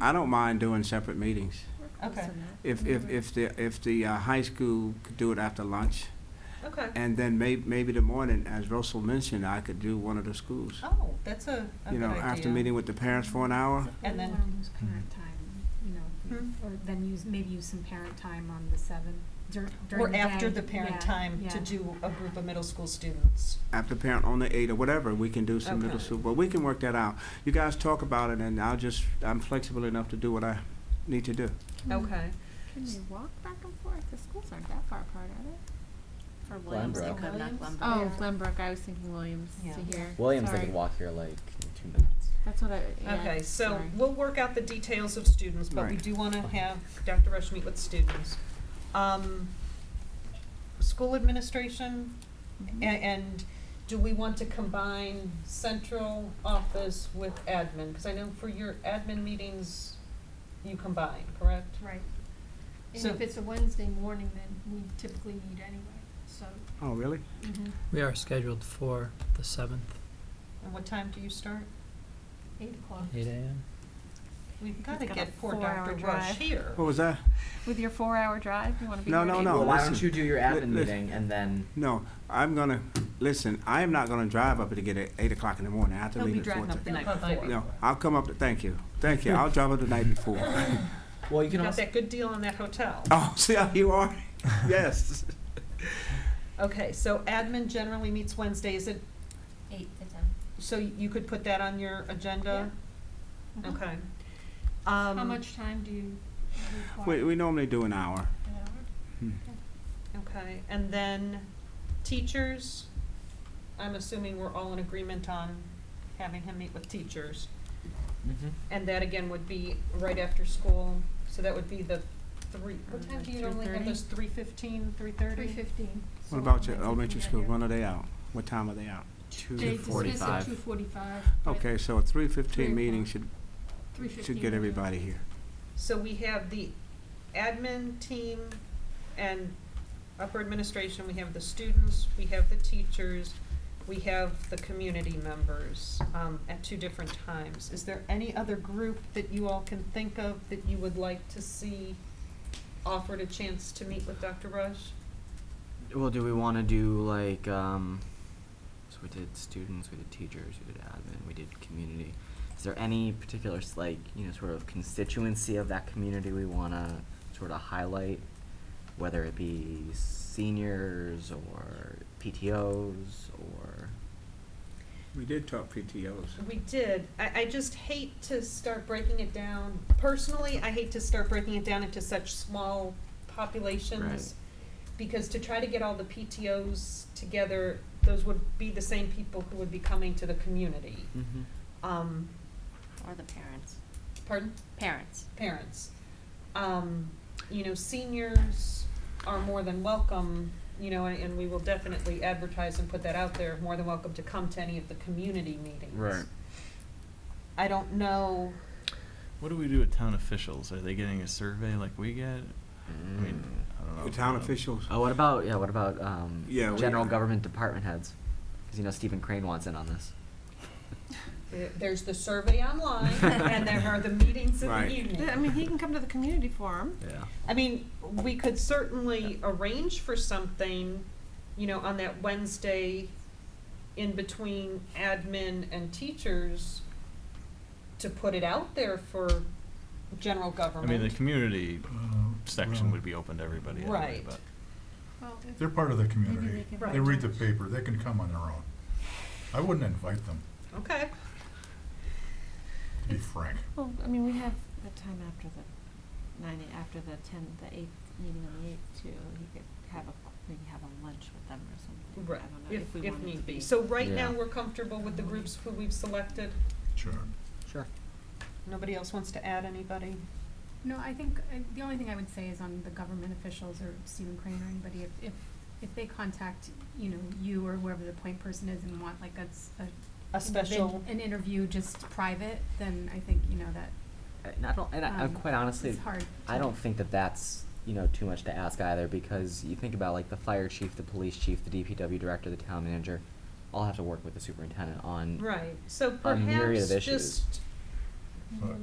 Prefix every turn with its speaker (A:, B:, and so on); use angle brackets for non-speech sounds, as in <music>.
A: I don't mind doing separate meetings.
B: Okay,
A: If,
B: Mm-hmm.
A: if, if the, if the uh, high school could do it after lunch,
B: okay.
A: and then may, maybe the morning, as Russell mentioned, I could do one of the schools.
B: Oh, that's a, a
A: You
B: good
A: know,
B: idea.
A: after meeting with the parents for an hour,
B: And then-
C: Or use parent
D: Mm-hmm.
C: time, you know,
B: Hmm?
C: or then use, maybe use some parent time on the seventh, dur- during
B: Or
C: the day.
B: after the parent
C: Yeah,
B: time to
C: yeah.
B: do a group of middle school students.
A: after parent on the eight or whatever, we can do some middle
B: Okay.
A: school, but we can work that out. You guys talk about it, and I'll just, I'm flexible enough to do what I need to do.
B: Hmm. Okay.
E: Can you walk back and forth? The schools aren't that far apart, are they?
F: For Williams, they
D: Glenbrook.
F: could not
C: Williams?
F: Glenbrook.
E: Oh, Glenbrook. I was thinking Williams
B: Yeah.
E: to here.
D: Williams,
E: Sorry.
D: they can walk here like in two minutes.
E: That's what I. Yeah,
B: Okay, so
E: sorry.
B: we'll work out the details of students, but we
A: Right.
B: do want to have Dr. Rush meet with students. Um, School administration,
E: Mm-hmm.
A: Mm-hmm.
B: a- and do we want to combine central office with admin? Because I know for your admin meetings, you combine, correct?
G: Right. And
B: So-
G: if it's a Wednesday morning, then we typically meet anyway, so.
A: Oh, really?
C: mm-hmm.
H: We are scheduled for the seventh,
B: And what time do you start?
G: Eight o'clock.
H: eight AM.
B: We've got to
E: He's got a
B: get poor
E: four-hour
B: Dr. Rush
E: drive.
B: here.
A: What was that?
E: With your four-hour drive, you want to be
A: No,
E: here at
A: no,
E: eight?
A: no.
D: well, why
A: listen.
D: don't you do your
A: Li- listen.
D: admin meeting and then
A: No, I'm gonna, listen, I am not gonna drive up to get it eight o'clock in the morning. I have to
C: They'll be
A: leave at four
C: driving
A: thirty.
C: up the night
B: Bye-bye.
C: before.
A: No, I'll come up to, thank you, thank you. I'll drive up the night
G: <laughs>
A: before.
D: well you
B: You
D: can
B: got
D: also
B: that good deal on that hotel.
A: Oh, see how you
G: <laughs>
A: are? Yes.
B: Okay, so admin generally meets Wednesdays. It-
F: Eight to ten.
B: So you could put that on your agenda?
G: Yeah. Mhm.
B: Okay. Um,
G: How much time do you require?
A: Um, We, we normally do an hour. Hmm.
G: An hour?
B: Okay, and then teachers, I'm assuming we're all in agreement on having him meet with teachers.
D: Mhm.
B: And that again would be right after school, so that would be the three, what time do you normally have
E: 3:30?
B: those, three fifteen, three thirty?
G: Three fifteen.
A: What about your elementary school? When are they out? What time are they out?
G: They
D: two
G: dismiss at two
D: forty-five.
G: forty-five.
A: Okay, so a three fifteen
G: Three
A: meeting
G: o'clock.
A: should,
G: Three fifteen.
A: should get everybody here.
B: So we have the admin team and upper administration, we have the students, we have the teachers, we have the community members, um, at two different times. Is there any other group that you all can think of that you would like to see offered a chance to meet with Dr. Rush?
D: Well do we wanna do like um so we did students, we did teachers, we did admin, we did community. Is there any particular s- like, you know, sort of constituency of that community we wanna sort of highlight? Whether it be seniors or PTOs or
A: We did talk PTOs.
B: We did. I, I just hate to start breaking it down. Personally, I hate to start breaking it down into such small populations.
D: Right.
B: Because to try to get all the PTOs together, those would be the same people who would be coming to the community.
D: mm-hmm.
B: Um,
F: Or the parents.
B: pardon?
F: Parents.
B: Parents. Um, you know, seniors are more than welcome, you know, and, and we will definitely advertise and put that out there, more than welcome to come to any of the community meetings.
D: Right.
B: I don't know.
I: What do we do with town officials? Are they getting a survey like we get? I mean, I don't know.
A: The town
I: Um,
A: officials.
D: Oh, what about yeah? What about um,
A: Yeah, we-
D: general government department heads? Because you know Stephen Crane wants in on this.
B: There- There's the survey online, and there are the meetings in the
A: Right.
B: evening.
E: Yeah, I mean, he can come to the community forum.
D: Yeah.
B: I mean, we could certainly arrange for something, you know, on that Wednesday in between admin and teachers to put it out there for general
I: I mean, the
B: government.
I: community section
J: well-
I: would be open to everybody anyway,
B: Right.
I: but.
G: Well, if-
J: They're part of the
E: Maybe
J: community.
E: they can.
B: Right.
J: They read the paper. They can come on their own. I wouldn't invite them,
B: Okay,
J: to be frank.
E: Well, I mean, we have the time after the nine, after the ten, the eighth meeting on the eighth too. He could have a, maybe have a lunch with them or something.
B: right,
E: I don't know
B: if,
E: if we
B: if
E: wanted to
B: need be. So right now,
D: Yeah.
B: we're comfortable with the groups who we've selected.
J: Sure.
D: Sure.
B: Nobody else wants to add anybody?
C: No, I think, uh, the only thing I would say is on the government officials or Stephen Crane or anybody, if, if, if they contact, you know, you or whoever the point person is and want like a, s- a.
B: A
C: an
B: special-
C: event- An interview just private, then I think, you know, that,
D: And I don't. And I, I'm
C: um,
D: quite honestly,
C: it's hard.
D: I
C: to-
D: don't think that that's you know too much to ask either because you think about like the fire chief, the police chief, the DPW director, the town manager, all have to work with the superintendent on
B: Right, so
D: A myriad
B: perhaps
D: of issues.
B: just
J: But